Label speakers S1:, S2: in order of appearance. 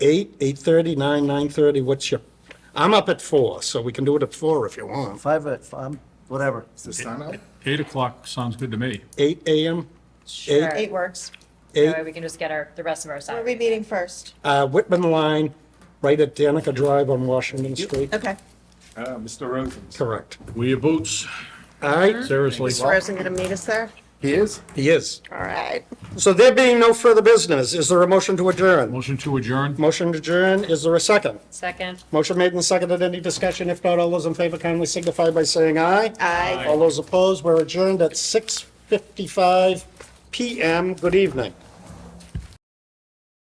S1: eight, eight thirty, nine, nine thirty, what's your, I'm up at four, so we can do it at four if you want.
S2: Five, at- um, whatever.
S3: Is the sun out?
S4: Eight o'clock sounds good to me.
S1: Eight AM,
S5: Sure.
S6: Eight works.
S5: That way
S1: Eight.
S5: we can just get our, the rest of our
S6: Where are we
S5: salary.
S6: meeting first?
S1: uh, Whitman Line, right at Danica Drive on Washington Street.
S6: Okay.
S3: Uh, Mr. Rosen's.
S1: Correct.
S4: Wear your boots,
S1: All right,
S4: seriously.
S6: Mr. Rosen going to meet us there?
S3: He is?
S1: he is.
S6: All right.
S1: So there being no further business, is there a motion to adjourn?
S4: Motion to adjourn?
S1: Motion to adjourn, is there a second?
S5: Second,
S1: Motion made and seconded, any discussion? If not, all those in favor kindly signify by saying aye.
S6: Aye.
S1: All those opposed, we're adjourned at 6:55 PM. Good evening.